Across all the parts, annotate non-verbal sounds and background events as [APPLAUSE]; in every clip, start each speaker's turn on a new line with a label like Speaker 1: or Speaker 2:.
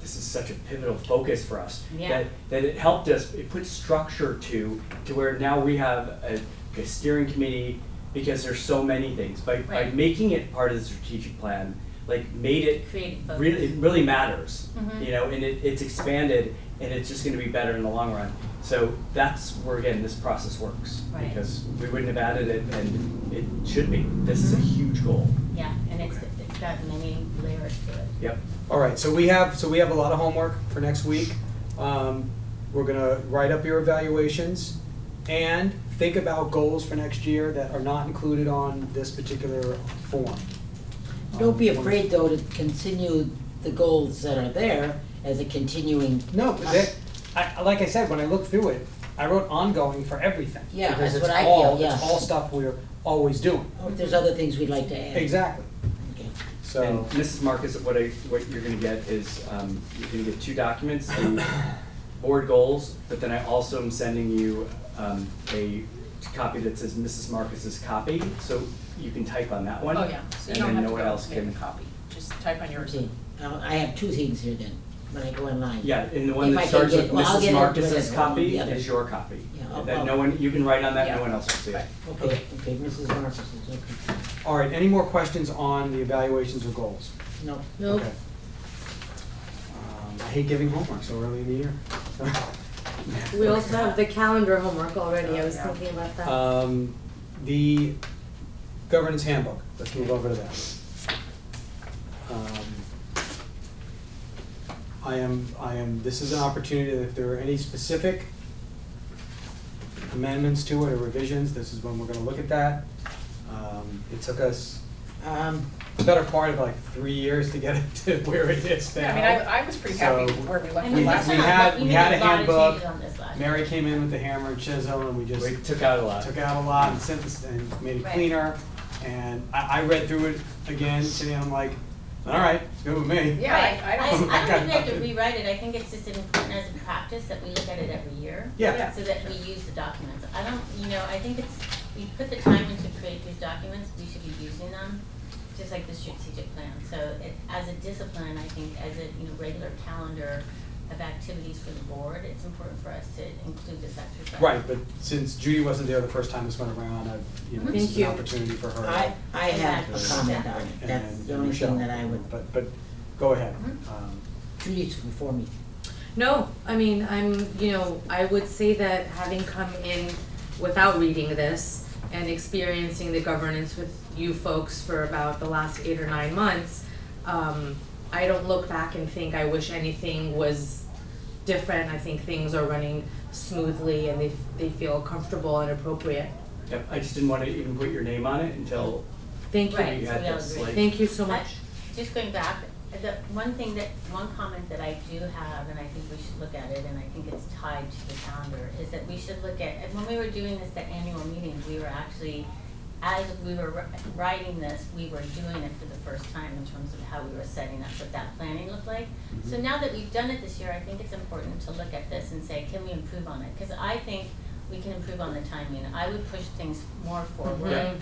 Speaker 1: this is such a pivotal focus for us.
Speaker 2: Yeah.
Speaker 1: That, that it helped us, it put structure to, to where now we have a, a steering committee because there's so many things. By, by
Speaker 2: Right.
Speaker 1: making it part of the strategic plan, like made it
Speaker 2: Creative focus.
Speaker 1: really, it really matters.
Speaker 2: Mhm.
Speaker 1: You know, and it, it's expanded and it's just gonna be better in the long run. So that's where, again, this process works.
Speaker 2: Right.
Speaker 1: Because we wouldn't have added it and it should be. This is a
Speaker 2: Mm-hmm.
Speaker 1: huge goal.
Speaker 2: Yeah, and it's, it's got many layers to it.
Speaker 1: Yep.
Speaker 3: All right, so we have, so we have a lot of homework for next week. Um, We're gonna write up your evaluations and think about goals for next year that are not included on this particular form. Um,
Speaker 4: Don't be afraid, though, to continue the goals that are there as a continuing.
Speaker 3: No, but that, I, I- like I said, when I looked through it, I wrote ongoing for everything.
Speaker 4: Yeah,
Speaker 3: because
Speaker 4: that's
Speaker 3: it's
Speaker 4: what I
Speaker 3: all-
Speaker 4: feel,
Speaker 3: It's
Speaker 4: yeah.
Speaker 3: all stuff we're always doing.
Speaker 4: Or if there's other things we'd like to add.
Speaker 3: Exactly,
Speaker 4: Okay.
Speaker 1: And
Speaker 3: so,
Speaker 1: Mrs. Marcus, what I, what you're gonna get is, um, you're gonna get two documents, the board goals, but then I also am sending you, um, a copy that says Mrs. Marcus's copy, so you can type on that one.
Speaker 5: Oh, yeah, so you
Speaker 1: and
Speaker 5: don't
Speaker 1: then
Speaker 5: have
Speaker 1: no
Speaker 5: to
Speaker 1: one else
Speaker 5: go
Speaker 1: can.
Speaker 5: make a copy, just type on yours.
Speaker 4: Okay. Now, I have two things here then, when I go online.
Speaker 1: Yeah, and the one
Speaker 4: If I
Speaker 1: that
Speaker 4: can
Speaker 1: starts
Speaker 4: get-
Speaker 1: with
Speaker 4: well, I'll
Speaker 1: Mrs.
Speaker 4: get it
Speaker 1: Marcus's
Speaker 4: whatever,
Speaker 1: copy
Speaker 4: the other.
Speaker 1: is your copy.
Speaker 4: Yeah, I'll-
Speaker 1: And Then no
Speaker 4: I'll-
Speaker 1: one, you can write on that, no
Speaker 5: Yeah.
Speaker 1: one else will see it.
Speaker 5: Right.
Speaker 4: Okay, okay, Mrs. Marcus is, okay.
Speaker 3: all right, any more questions on the evaluations or goals?
Speaker 4: No.
Speaker 3: Okay. Um, I hate giving homework so early in the year.
Speaker 6: [LAUGHS] We also have the calendar homework already, I was
Speaker 5: Yeah.
Speaker 6: thinking about that.
Speaker 3: Um, the governance handbook, let's move over to that. Um, I am, I am, this is an opportunity, that if there are any specific amendments to it or revisions, this is when we're gonna look at that. Um, it took us
Speaker 4: Um,
Speaker 3: the better part of like three years to get it to [LAUGHS] where it is now.
Speaker 5: Yeah, I mean, I, I was pretty happy
Speaker 3: So-
Speaker 5: where we
Speaker 2: I
Speaker 5: left
Speaker 2: mean,
Speaker 5: it
Speaker 3: We-
Speaker 2: that's
Speaker 5: last
Speaker 3: we
Speaker 2: not-
Speaker 5: time.
Speaker 3: had-
Speaker 2: but
Speaker 3: we
Speaker 2: made
Speaker 3: had a handbook.
Speaker 2: lot of changes on this last year.
Speaker 3: Mary came in with the hammer and chisel and we just.
Speaker 1: We took out a lot.
Speaker 3: took out a lot and synthesized and made it
Speaker 2: Right.
Speaker 3: cleaner. And I, I read through it again today, and I'm like, all right, it's good with me.
Speaker 5: Yeah,
Speaker 2: Right.
Speaker 5: I, I don't.
Speaker 3: know.
Speaker 2: I, I don't think we have to rewrite it, I think it's just important as a practice that we look at it every year.
Speaker 3: Yeah.
Speaker 2: So that we use the documents. I don't, you know, I think it's, we put the time into create these documents, we should be using them, just like the strategic plan. So it, as a discipline, I think, as a, you know, regular calendar of activities for the board, it's important for us to include this exercise.
Speaker 3: Right, but since Judy wasn't there the first time this went around, I, you know, this
Speaker 4: Thank
Speaker 3: is an
Speaker 4: you.
Speaker 3: opportunity for her.
Speaker 4: I, I have a
Speaker 2: Exactly.
Speaker 4: comment on it,
Speaker 3: and-
Speaker 4: that's the
Speaker 3: and
Speaker 4: only
Speaker 3: Michelle.
Speaker 4: thing that I would,
Speaker 3: But, but, go ahead.
Speaker 2: Mhm.
Speaker 3: Um,
Speaker 4: Judy's before me.
Speaker 7: No, I mean, I'm, you know, I would say that having come in without reading this and experiencing the governance with you folks for about the last eight or nine months, um, I don't look back and think I wish anything was different. I think things are running smoothly and they, they feel comfortable and appropriate.
Speaker 1: Yep, I just didn't wanna even put your name on it until
Speaker 7: Thank you.
Speaker 2: Right,
Speaker 1: you
Speaker 2: so
Speaker 1: had
Speaker 2: we all
Speaker 1: this,
Speaker 2: agree.
Speaker 1: like.
Speaker 7: Thank you so much.
Speaker 2: Just going back, the one thing that, one comment that I do have, and I think we should look at it, and I think it's tied to the calendar, is that we should look at, and when we were doing this, the annual meeting, we were actually, as we were wri- writing this, we were doing it for the first time in terms of how we were setting up what that planning looked like. So now that we've done it this year, I think it's important to look at this and say, can we improve on it? Cause I think we can improve on the timing. I would push things more forward.
Speaker 7: Yeah.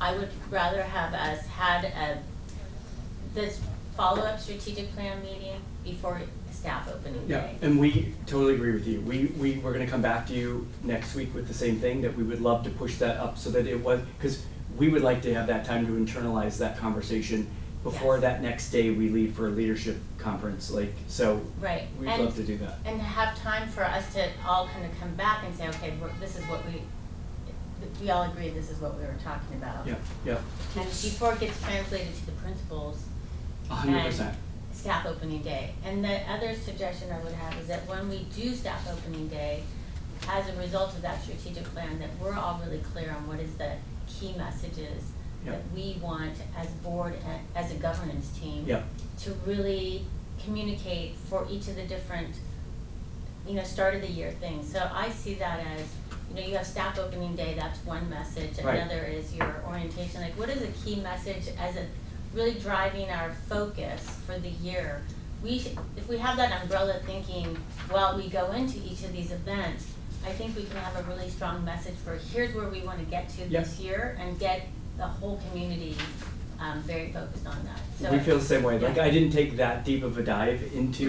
Speaker 2: I would rather have us had a, this follow-up strategic plan meeting before staff opening
Speaker 1: Yeah,
Speaker 2: day.
Speaker 1: and we totally agree with you. We, we, we're gonna come back to you next week with the same thing, that we would love to push that up so that it was, because we would like to have that time to internalize that conversation before
Speaker 2: Yes.
Speaker 1: that next day we leave for a leadership conference, like, so
Speaker 2: Right,
Speaker 1: we'd
Speaker 2: and,
Speaker 1: love to do that.
Speaker 2: and have time for us to all kind of come back and say, okay, we're- this is what we, we all agree this is what we were talking about.
Speaker 1: Yeah, yeah,
Speaker 2: And before it gets translated to the principals,
Speaker 1: a hundred
Speaker 2: And-
Speaker 1: percent.
Speaker 2: staff opening day. And the other suggestion I would have is that when we do staff opening day, as a result of that strategic plan, that we're all really clear on what is the key messages that we want as board, and as a governance team.
Speaker 1: Yep.
Speaker 2: To really communicate for each of the different, you know, start of the year things. So I see that as, you know, you have staff opening day, that's one message.
Speaker 1: Right.
Speaker 2: Another is your orientation, like what is a key message as a really driving our focus for the year. We should, if we have that umbrella thinking while we go into each of these events, I think we can have a really strong message for here's where we wanna get to this year and get the whole community um very focused on that. So
Speaker 1: We
Speaker 2: I-
Speaker 1: feel the same way. Like, I didn't take that deep of a dive into